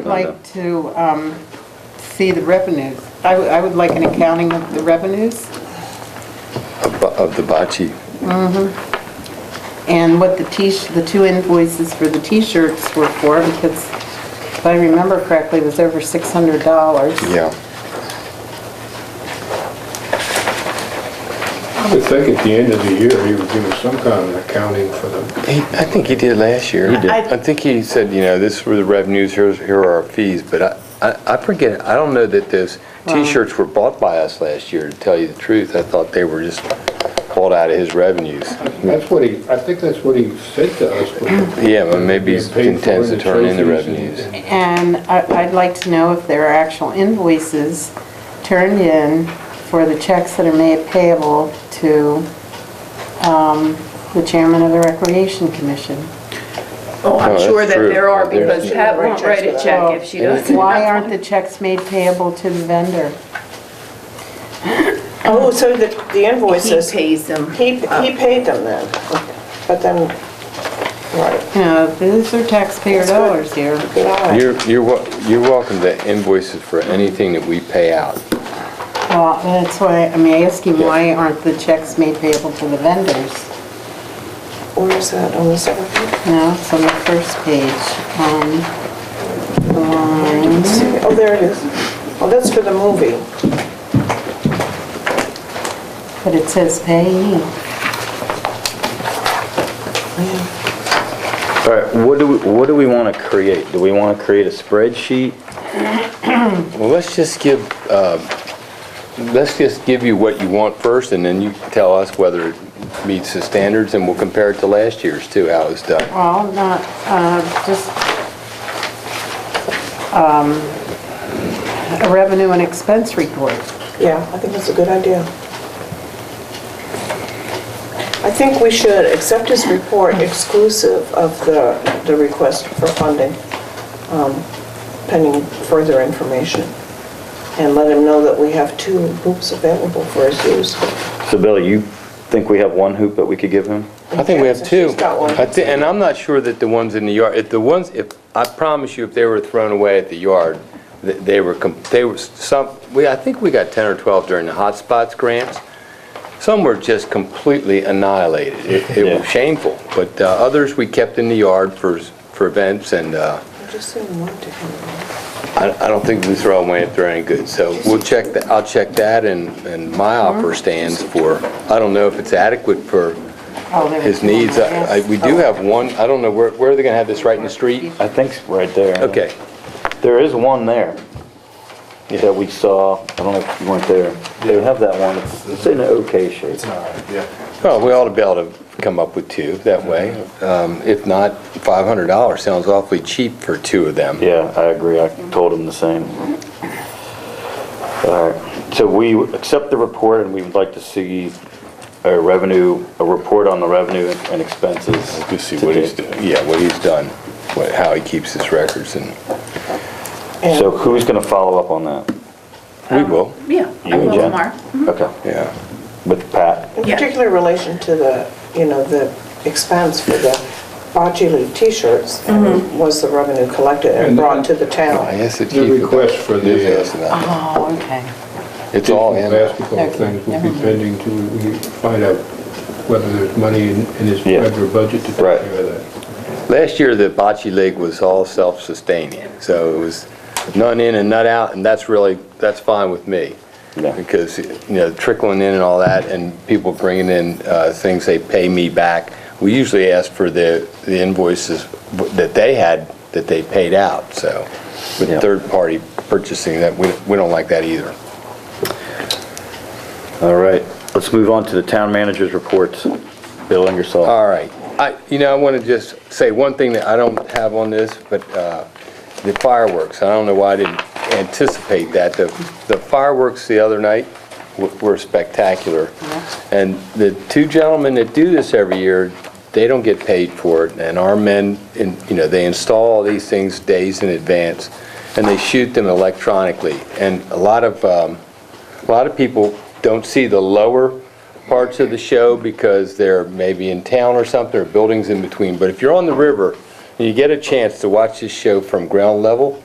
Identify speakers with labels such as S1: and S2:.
S1: like to um, see the revenues. I would- I would like an accounting of the revenues
S2: of of the bocce.
S1: and what the t, the two invoices for the t-shirts were for, because if I remember correctly, it was over $600.
S2: Yeah.
S3: I would think at the end of the year, he would give us some kind of accounting for the,
S2: He- I think he did last year. He
S1: did. I-
S2: I think he said, you know, this were the revenues, here's- here are our fees, but I- I I forget, I don't know that those t-shirts were bought by us last year, to tell you the truth. I thought they were just bought out of his revenues.
S3: that's what he, I think that's what he said to us. but-
S2: Yeah, but maybe he
S3: Paid for
S2: intends to
S3: the
S2: turn in the
S3: trophies and-
S2: revenues.
S1: And I- I'd like to know if there are actual invoices turned in for the checks that are made payable to um, the chairman of the Recreation Commission.
S4: Oh,
S2: Oh,
S4: I'm
S2: that's
S4: sure that
S2: true.
S4: there are
S2: There's-
S4: because Pat won't write a check if she doesn't.
S1: Why aren't the checks made payable to the vendor?
S5: Oh, so the the
S4: Um, He
S5: invoices, he,
S4: pays them.
S5: he paid them then, but then, right,
S1: You know, these are taxpayer dollars here.
S5: good eye.
S2: You're you're wel- you're welcome to invoices for anything that we pay out.
S1: Well, that's why, I mean, I ask him why aren't the checks made payable to the vendors?
S5: Where is that, on the second page?
S1: No, it's on the first page. Um,
S5: Oh, there it is. Oh, that's for the movie.
S1: But it says payee.
S6: All right, what do we, what do we want to create? Do we want to create a spreadsheet?
S2: Well, let's just give, uh, let's just give you what you want first, and then you tell us whether it meets the standards, and we'll compare it to last year's too, how it's done.
S1: Well, not, uh, just um, a revenue and expense report.
S5: Yeah, I think that's a good idea. I think we should accept his report exclusive of the, the request for funding, um, pending further information, and let him know that we have two hoops available for his use.
S6: So Billy, you think we have one hoop that we could give him?
S2: I think we have two.
S5: She's got one.
S2: I thi- And I'm not sure that the ones in the yard, if the ones, if, I promise you, if they were thrown away at the yard, th- they were, com- they were some, we, I think we got 10 or 12 during the hot spots grants. Some were just completely annihilated. It it
S6: Yeah.
S2: was shameful, but uh, others we kept in the yard for, s- for events and, uh,
S5: I just sent one to him.
S2: I I don't think we throw them away if they're any good, so we'll check, that. I'll check that, and and my offer stands for, I don't know if it's adequate for
S1: Oh, there was
S2: his needs.
S1: one, yes.
S2: I- I- We do have one, I don't know, where where are they going to have this, right in the street?
S6: I think it's right there.
S2: Okay,
S6: There is one there that we saw, I don't know if you weren't there. They have that one, It's- it's in an okay shape.
S2: well, we ought to be able to come up with two that way. Um, If not, $500 sounds awfully cheap for two of them.
S6: Yeah, I agree, I told him the same. All right, so we accept the report and we would like to see a revenue, a report on the revenue and expenses.
S2: To see what he's,
S6: today.
S2: yeah, what he's done, what- how he keeps his records, and
S6: So who's going to follow up on that?
S2: we will,
S4: Yeah, I
S6: You and
S4: will
S6: Jen?
S4: tomorrow.
S6: Okay.
S2: yeah.
S6: With Pat?
S5: In
S4: Yeah.
S5: particular relation to the, you know, the expense for the Bocce League t-shirts, and was the revenue collected
S3: And
S5: and
S3: then-
S5: brought to the
S2: I
S5: town.
S2: guess it
S3: The
S2: keeps-
S3: request for the,
S2: Yes, yes, and I-
S1: Oh, okay.
S2: It's all in.
S3: Basketball
S1: Okay,
S3: things will
S1: never
S3: be
S1: mind.
S3: pending to, we find out whether there's money in in his
S6: Yeah.
S3: regular budget to take
S2: Right.
S3: care of that.
S2: Last year, the bocce league was all self-sustaining, so it was none in and none out, and that's really, that's fine with me.
S6: Yeah.
S2: Because, you know, trickling in and all that, and people bringing in uh, things they pay me back. We usually ask for the the invoices that they had, that they paid out, so with
S6: Yeah.
S2: third-party purchasing, that, we we don't like that either.
S6: All right, let's move on to the town manager's reports. Bill Ingersoll.
S2: All right. I, you know, I want to just say one thing that I don't have on this, but uh, the fireworks, I don't know why I didn't anticipate that. The the fireworks the other night w- were spectacular. And the two gentlemen that do this every year, they don't get paid for it. And our men, in- you know, they install all these things days in advance, and they shoot them electronically. And a lot of, um, a lot of people don't see the lower parts of the show because they're maybe in town or something, or buildings in between. But if you're on the river and you get a chance to watch this show from ground level,